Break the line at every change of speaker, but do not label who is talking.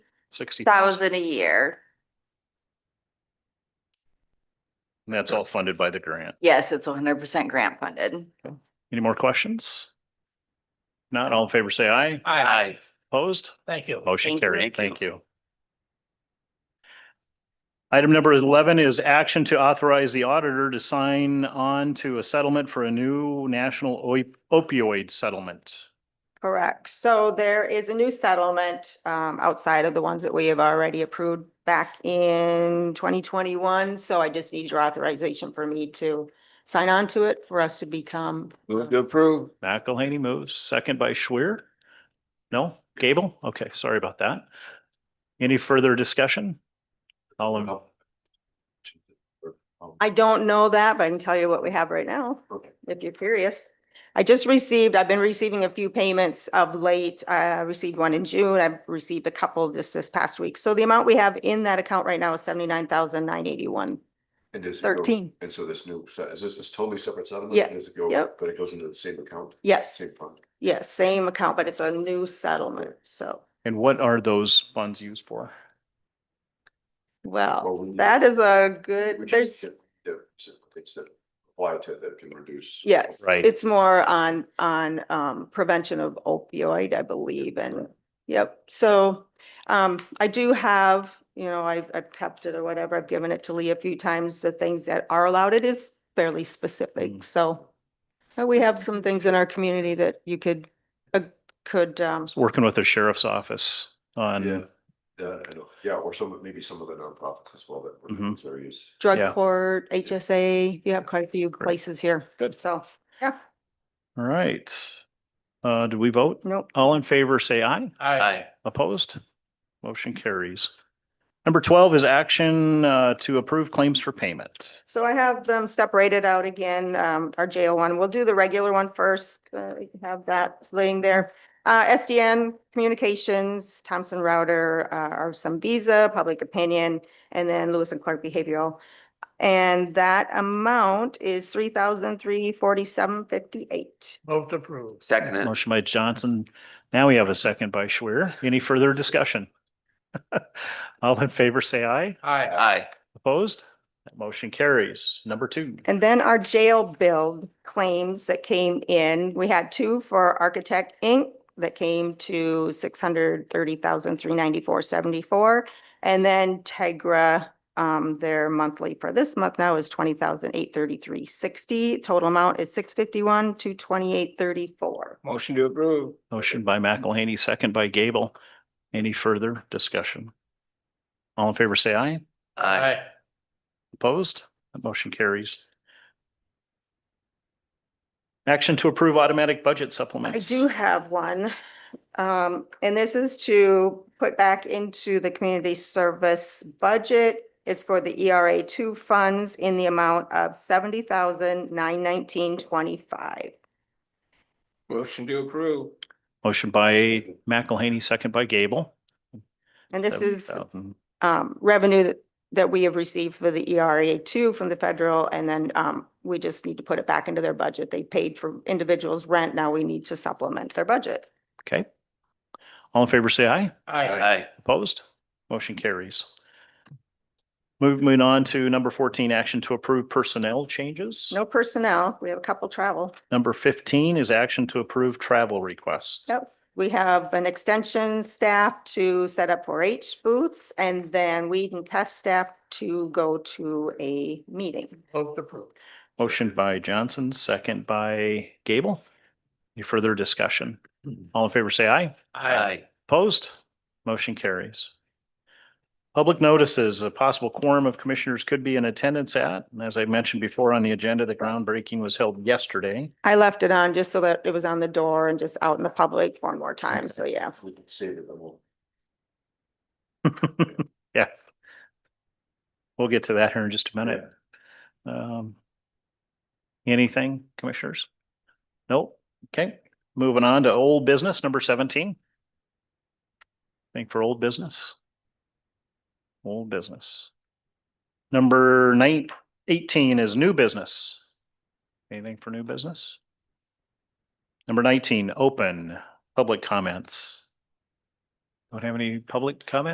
Sixty thousand,
thousand a year.
and that's all funded by the grant.
Yes, it's hundred percent grant funded.
Any more questions? Not all in favor, say aye.
Aye.
Opposed?
Thank you.
Motion
Thank you.
carried.
Thank
Thank you. Item number eleven is action to authorize the auditor to sign on to a settlement for a new national oi- opioid settlement.
Correct. So there is a new settlement um, outside of the ones that we have already approved back in twenty twenty-one. So I just need your authorization for me to sign on to it for us to become.
Move to approve.
McElhaney moves, second by Schwer. No, Gable? Okay, sorry about that. Any further discussion? All in,
I don't know that, but I can tell you what we have right now.
Okay.
if you're curious. I just received, I've been receiving a few payments of late. I received one in June. I've received a couple just this past week. So the amount we have in that account right now is seventy-nine thousand nine eighty-one
And does it go-
thirteen.
And so this new, se- is this, this totally separate settlement?
Yeah,
Does it go,
yep.
but it goes into the same account,
Yes,
same fund?
yes, same account, but it's a new settlement. So,
and what are those funds used for?
well,
Well, we-
that is a
we
good,
should
there's,
get- yeah, so Things that apply to that can reduce.
yes.
Right.
It's more on, on, um, prevention of opioid, I believe, and Yep, so um I do have, you know, I've I've kept it or whatever, I've given it to Lee a few times, the things that are allowed, it is fairly
Mm.
specific, so. uh, we have some things in our community that you could, uh, could um,
Working with the sheriff's office on,
Yeah, yeah, I know. Yeah, or some, maybe some of the nonprofits as well that were
Mhm.
these areas.
Yeah.
drug court, HSA, you have quite a few places here.
Good.
So, yeah,
all right. Uh, do we vote?
nope,
All in favor, say aye.
Aye.
Opposed? Motion carries. Number twelve is action uh, to approve claims for payment.
so I have them separated out again, um, our jail one, we'll do the regular one first, uh, we can have that laying there. Uh, SDN Communications, Thompson Router, uh, are some Visa, Public Opinion, and then Lewis and Clark Behavioral. And that amount is three thousand three forty-seven fifty-eight.
Vote approved.
Second it.
Motion by Johnson. Now we have a second by Schwer. Any further discussion? All in favor, say aye.
Aye.
Aye,
Opposed? That motion carries. Number two.
And then our jail bill claims that came in, we had two for Architect Inc. that came to six hundred thirty thousand, three ninety-four, seventy-four. And then Tegra, um, their monthly for this month now is twenty thousand, eight thirty-three, sixty. Total amount is six fifty-one, two twenty-eight, thirty-four.
Motion to approve.
Motion by McElhaney, second by Gable. Any further discussion? All in favor, say aye.
aye,
Opposed? That motion carries. Action to approve automatic budget
I
supplements.
do have one. Um, and this is to put back into the community service budget. It's for the ERA two funds in the amount of seventy thousand nine nineteen twenty-five.
Motion to approve.
Motion by McElhaney, second by Gable. uh,
And this is,
70,000.
um, revenue that, that we have received for the ERA two from the federal. And then, um, we just need to put it back into their budget. They paid for individuals' rent. Now we need to supplement their budget.
Okay. All in favor, say aye.
Aye.
aye,
Opposed? Motion carries. Moving on to number fourteen, action to approve personnel changes.
No personnel. We have a couple travel.
Number fifteen is action to approve travel requests.
Yep, we have an extension staff to set up four H booths and then we can test staff to go to a meeting.
Vote approved.
Motion by Johnson, second by Gable. Any further discussion? All in favor, say aye.
aye,
Opposed? Motion carries. Public notices, a possible quorum of commissioners could be in attendance at, and as I mentioned before on the agenda, the groundbreaking was held yesterday.
I left it on just so that it was on the door and just out in the public one more time. So yeah,
We can save it, then we'll.
Yeah. We'll get to that here in just a minute. Um, anything, commissioners? Nope. Okay, moving on to old business, number seventeen. Think for old business. Old business. Number nine, eighteen is new business. Anything for new business? Number nineteen, open public comments. Don't have any public comment?